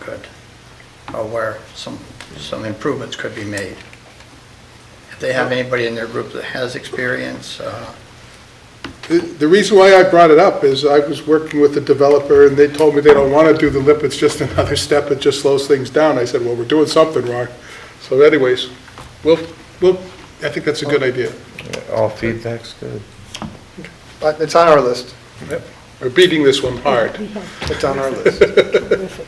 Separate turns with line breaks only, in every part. could, or where some, some improvements could be made. If they have anybody in their group that has experience, uh,
The the reason why I brought it up is I was working with a developer, and they told me they don't want to do the lip, it's just another step, it just slows things down. I said, well, we're doing something wrong. So anyways, we'll, we'll, I think that's a good idea.
All feedback's good.
But it's on our list.
We're beating this one hard.
It's on our list.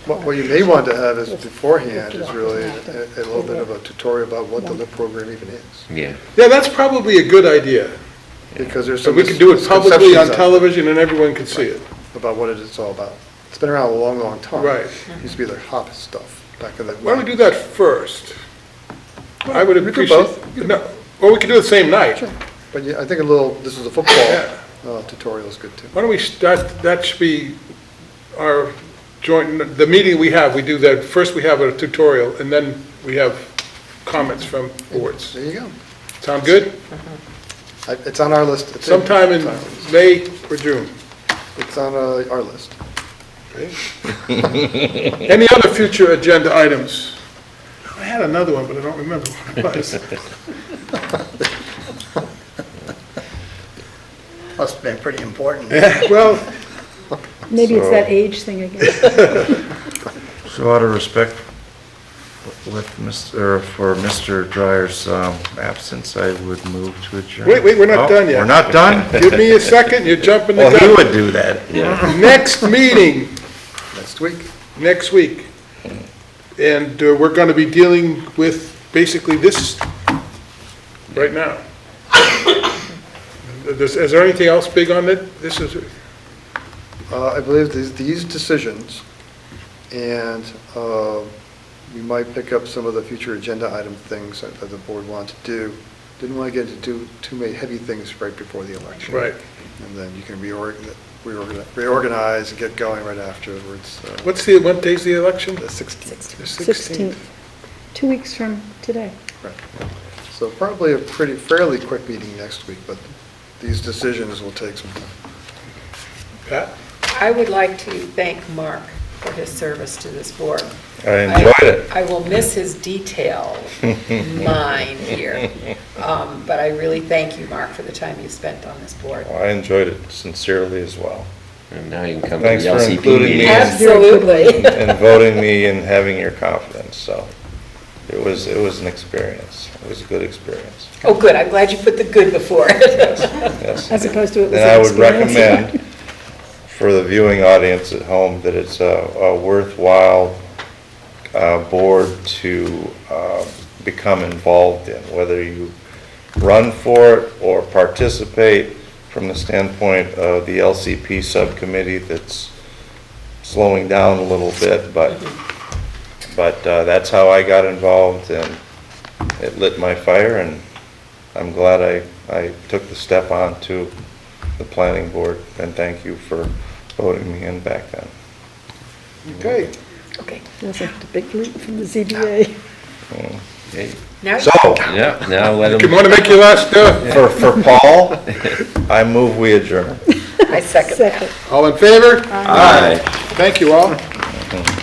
What what you may want to have is beforehand is really a a little bit of a tutorial about what the LIP program even is.
Yeah.
Yeah, that's probably a good idea.
Because there's
So
some
we can do it publicly on
misconceptions out
television, and everyone can see it.
there About what it is all about. It's been around a long, long time.
Right.
Used to be the hobbit stuff back in the.
Why don't we do that first? I would
We could do
appreciate. No, Or we could do it the same night.
But yeah, I think a little, this is a
Yeah.
football uh, tutorial is good too.
Why don't we, that, that should be our joint, the meeting we have, we do that, first we have a tutorial, and then we have comments from boards.
There you go.
Sound good?
I- It's on our list. It's in-
Sometime in
it's on our list.
May or June.
It's on uh, our list.
Any other future agenda items? I had another one, but I don't remember what it was.
must have been pretty important.
Well,
Maybe it's
So-
that age thing again.
So out of respect with Mr., for Mr. Dreyer's um, absence, I would move to adjourn.
Wait, wait, we're not
Oh,
done yet.
We're not done?
give me a second, you're jumping the
Well, Oh, he
gun.
would do that. Yeah.
Next meeting,
Next week.
next week. And uh, we're going to be dealing with basically this right now. Is is there anything else big on it? This is,
Uh, I believe these, these decisions, and uh, we might pick up some of the future agenda item things that that the board wants to do. Didn't want to get into too, too many heavy things right before the election.
Right.
And then you can reorg- reorganize, reorganize and get going right afterwards. uh,
what's the, what day's the election?
The 16th.
The
16th, two weeks from today.
Right. So probably a pretty, fairly quick meeting next week, but these decisions will take some time.
Pat?
I would like to thank Mark for his service to this board.
I enjoyed it.
I will miss his detail mind here, Um, but I really thank you, Mark, for the time you spent on this board.
I enjoyed it sincerely as well.
And now you can come to the
Thanks for
LCP
including me
meeting.
and-
Absolutely.
and voting me and having your confidence, so it was, it was an experience. It was a good experience.
Oh, good, I'm glad you put the good before it.
Yes.
As opposed to it was
Then I
an
would
experience.
recommend for the viewing audience at home that it's a a worthwhile uh, board to uh, become involved in, whether you run for it or participate from the standpoint of the LCP subcommittee that's slowing down a little bit, but, but uh, that's how I got involved and it lit my fire and I'm glad I, I took the step on to the planning board, and thank you for voting me in back then.
Okay.
Okay,
It was a big leap from the ZBA.
now,
So,
Yeah, now let
You
them,
want to make your last, uh,
for, for Paul, I move we adjourn.
I second that.
Second.
all in favor?
Aye.
Thank you all.